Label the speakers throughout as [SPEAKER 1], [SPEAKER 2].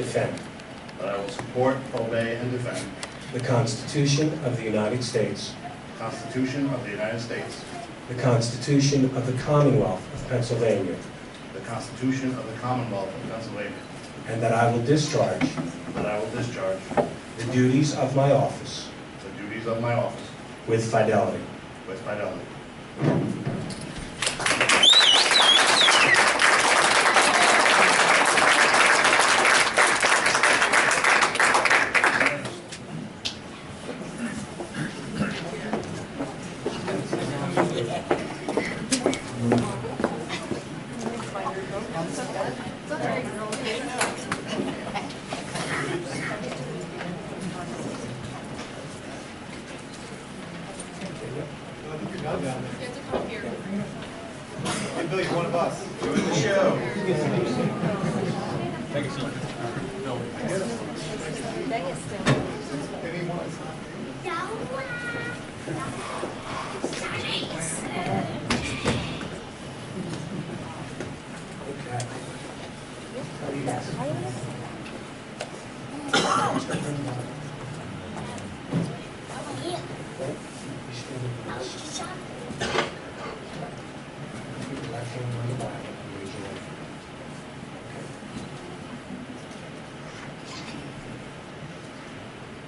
[SPEAKER 1] defend
[SPEAKER 2] that I will support, obey, and defend
[SPEAKER 1] the Constitution of the United States,
[SPEAKER 2] the Constitution of the United States,
[SPEAKER 1] the Constitution of the Commonwealth of Pennsylvania,
[SPEAKER 2] the Constitution of the Commonwealth of Pennsylvania,
[SPEAKER 1] and that I will discharge
[SPEAKER 2] that I will discharge
[SPEAKER 1] the duties of my office
[SPEAKER 2] the duties of my office
[SPEAKER 1] with fidelity.
[SPEAKER 2] with fidelity.
[SPEAKER 3] I think you're done down there. You have to come here. Hey, Billy, you're one of us. Doing the show. Anyone?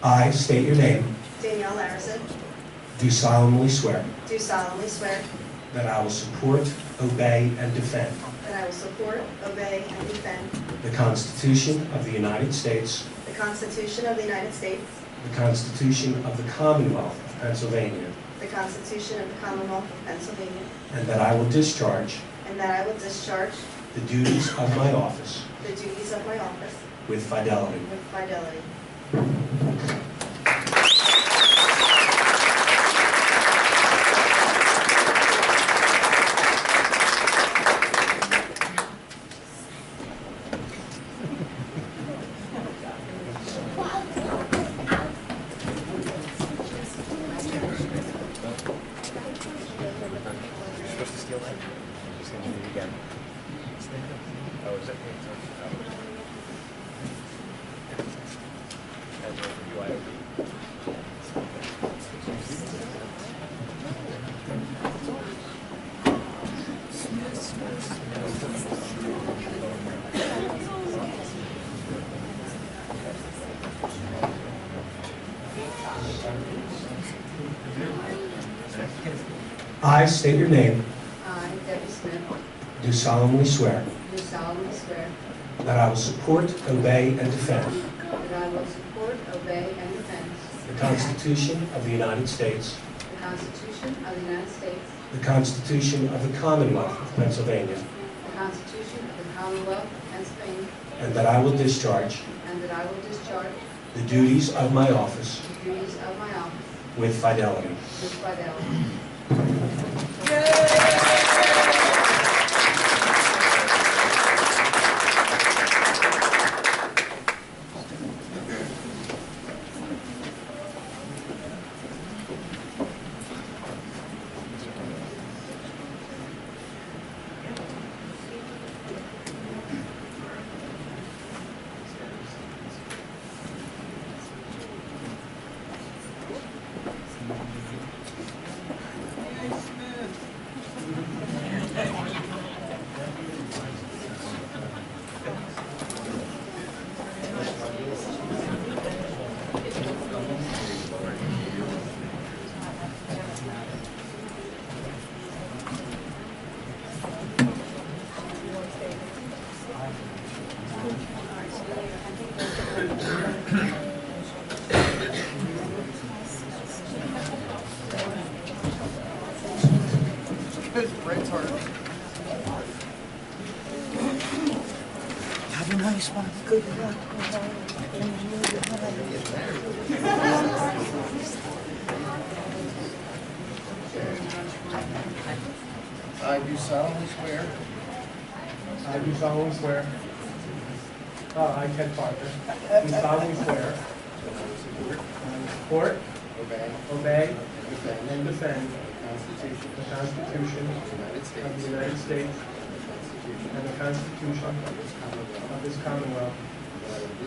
[SPEAKER 1] I state your name,
[SPEAKER 4] Danielle Larison,
[SPEAKER 1] do solemnly swear
[SPEAKER 4] do solemnly swear
[SPEAKER 1] that I will support, obey, and defend
[SPEAKER 4] that I will support, obey, and defend
[SPEAKER 1] the Constitution of the United States,
[SPEAKER 4] the Constitution of the United States,
[SPEAKER 1] the Constitution of the Commonwealth of Pennsylvania,
[SPEAKER 4] the Constitution of the Commonwealth of Pennsylvania,
[SPEAKER 1] and that I will discharge
[SPEAKER 4] and that I will discharge
[SPEAKER 1] the duties of my office
[SPEAKER 4] the duties of my office
[SPEAKER 1] with fidelity.
[SPEAKER 4] with fidelity.
[SPEAKER 1] I state your name,
[SPEAKER 4] I, Debbie Smith,
[SPEAKER 1] do solemnly swear
[SPEAKER 4] do solemnly swear
[SPEAKER 1] that I will support, obey, and defend
[SPEAKER 4] that I will support, obey, and defend
[SPEAKER 1] the Constitution of the United States,
[SPEAKER 4] the Constitution of the United States,
[SPEAKER 1] the Constitution of the Commonwealth of Pennsylvania,
[SPEAKER 4] the Constitution of the Commonwealth of Pennsylvania,
[SPEAKER 1] and that I will discharge
[SPEAKER 4] and that I will discharge
[SPEAKER 1] the duties of my office
[SPEAKER 4] the duties of my office
[SPEAKER 1] with fidelity.
[SPEAKER 4] with fidelity.
[SPEAKER 5] I do solemnly swear
[SPEAKER 3] I do solemnly swear. Uh, I, Ted Parker, do solemnly swear
[SPEAKER 5] that I will support,
[SPEAKER 3] that I will support,
[SPEAKER 5] obey,
[SPEAKER 3] obey,
[SPEAKER 5] and defend
[SPEAKER 3] and defend
[SPEAKER 5] the Constitution
[SPEAKER 3] the Constitution
[SPEAKER 5] of the United States
[SPEAKER 3] of the United States
[SPEAKER 5] and the Constitution
[SPEAKER 3] and the Constitution
[SPEAKER 5] of this Commonwealth,
[SPEAKER 3] of this Commonwealth,
[SPEAKER 5] and that I will